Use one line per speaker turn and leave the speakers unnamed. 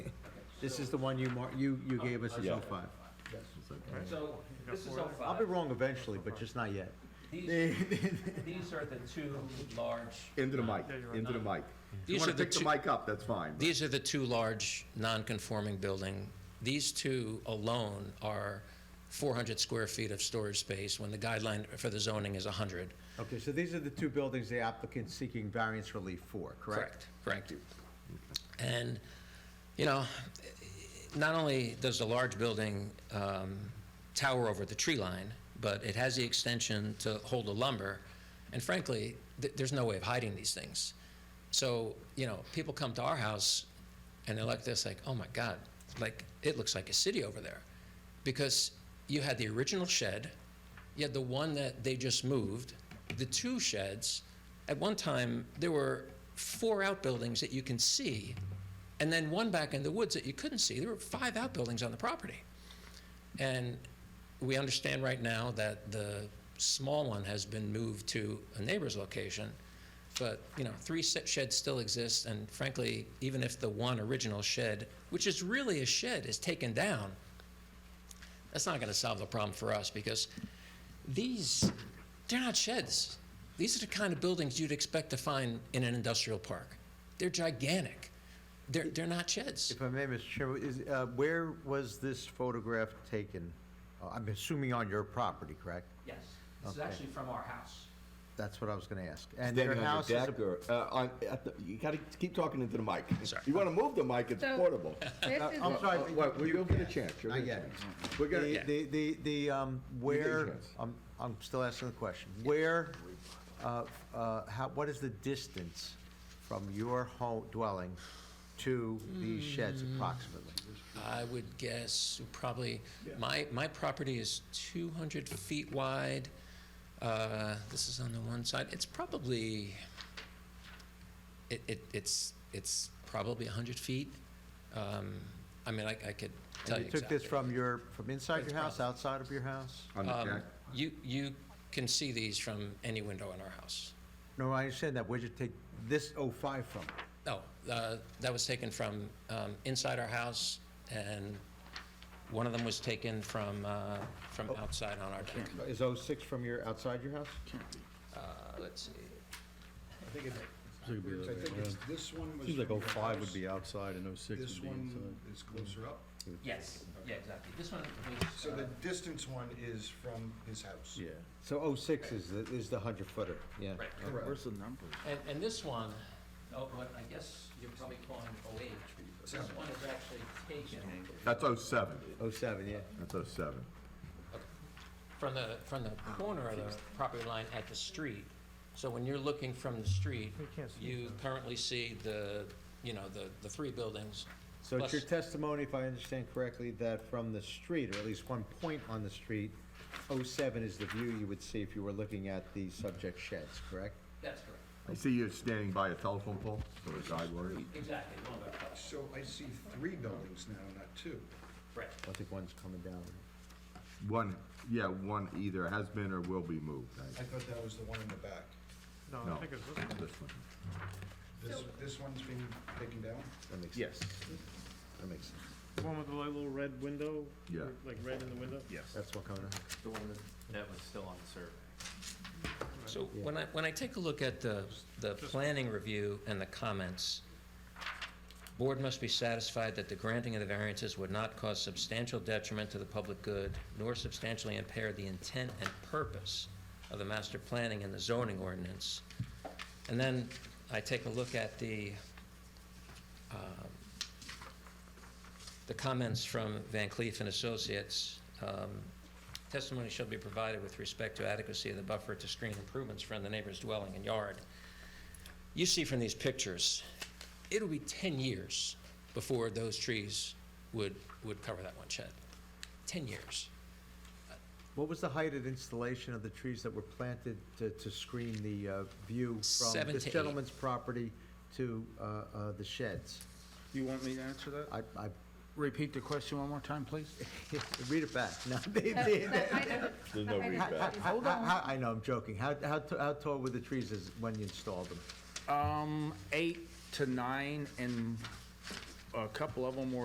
This is the one you mar, you, you gave us as
Yeah.
oh five.
So this is
I'll be
05.
wrong eventually, but just not yet.
These, these are the two large,
Into the mic,
Yeah, you're right.
into the mic. If you
These
want
are
to
the
pick the
two-
mic up, that's fine. but-
These are the two large non-conforming building. These two alone are 400 square feet of storage space when the guideline for the zoning is 100.
Okay, so these are the two buildings the applicant's seeking variance relief for, correct?
Correct. And, you know, not only does the large building um, tower over the tree line, but it has the extension to hold the lumber. And frankly, th- there's no way of hiding these things. So, you know, people come to our house and they're like this, like, oh my God, like, it looks like a city over there. Because you had the original shed, you had the one that they just moved, the two sheds. At one time, there were four outbuildings that you can see, and then one back in the woods that you couldn't see. There were five outbuildings on the property. And we understand right now that the small one has been moved to a neighbor's location, but, you know, three se- sheds still exist, and frankly, even if the one original shed, which is really a shed, is taken down, that's not gonna solve the problem for us, because these, they're not sheds. These are the kind of buildings you'd expect to find in an industrial park. They're gigantic. They're, they're not sheds.
If I may, Mr. Chairman, is, uh, where was this photograph taken? Uh, I'm assuming on your property, correct?
yes. This is
Okay.
actually from our house.
That's what I was gonna ask. And your
Standing on
house
your
is,
deck or, uh, on, at the, you gotta keep talking into the mic.
Sorry.
You wanna move the mic, it's
So-
portable.
This
a-
is,
I'm sorry.
Uh, Wait, well, you'll get a chance. you'll
Not
get a
yet.
chance. We're gonna,
The, the, the, the, um, where,
chance.
I'm, I'm still asking the question. Where, uh, uh, how, what is the distance from your home dwelling to
Hmm.
these sheds approximately?
I would guess probably, my, my property is 200 feet wide. Uh, This is on the one side. It's probably, it, it, it's, it's probably 100 feet. Um, I mean, I, I could tell
And
you
you took this
exactly.
from your, from inside your
It's
house,
probably-
outside of your house?
on the
Um,
deck.
You, you can see these from any window in our house.
No, I understand that. Where'd you take this '05 from?
No, uh, that was taken from um, inside our house, and one of them was taken from, uh, from
Oh.
outside on our deck.
Is '06 from your, outside your house?
Uh, Let's see.
I think it's, this one was.
Seems like
from
oh
your
five
house.
would be outside and oh six
This
would be
one
inside.
is closer up.
Yes, yeah, exactly. This one was,
So
uh,
the distance one is from his house.
Yeah.
So '06 is the, is the hundred footer, yeah.
right.
Correct.
And, and this one,
Oh, what, I guess you're probably calling 08. This one is actually taken
That's oh seven,
'07, yeah.
that's oh seven.
from the, from the corner of the property line at the street, so when you're looking from the street, you currently see the, you know, the, the three buildings.
So it's your
plus-
testimony, if I understand correctly, that from the street, or at least one point on the street, '07 is the view you would see if you were looking at the subject sheds, correct?
That's correct.
I see you're standing by a telephone pole or a guide wire.
Exactly. one of our-
So I see three buildings now, not two.
Right.
I think one's coming down.
One, yeah, one either has been or will be moved.
I thought that was the one in the back.
No,
No.
I think it's this
I-
one.
this one.
This, this one's being taken down?
That makes,
Yes.
that makes sense.
The one with the little red window?
Yeah.
Like red in the window?
Yes.
That's what coming up.
The one that, that was still on the survey.
So when I, when I take a look at the, the planning review and the comments, board must be satisfied that the granting of the variances would not cause substantial detriment to the public good, nor substantially impair the intent and purpose of the master planning and the zoning ordinance. And then I take a look at the, um, the comments from Van Cleef and Associates. Um, Testimony shall be provided with respect to adequacy of the buffer to screen improvements from the neighbor's dwelling and yard. You see from these pictures, it'll be 10 years before those trees would, would cover that one shed. 10 years.
What was the height of installation of the trees that were planted to, to screen the uh, view from
Seven
this
to eight.
gentleman's property to uh, uh, the sheds?
You want me to answer that?
I, I,
Repeat the question one more time, please?
read it back. No, they-
that-
they-
that height of the-
There's
no read back.
How- how- I know, I'm joking. How, how, t- how tall were the trees as, when you installed them?
Um, eight to nine, and a couple of them were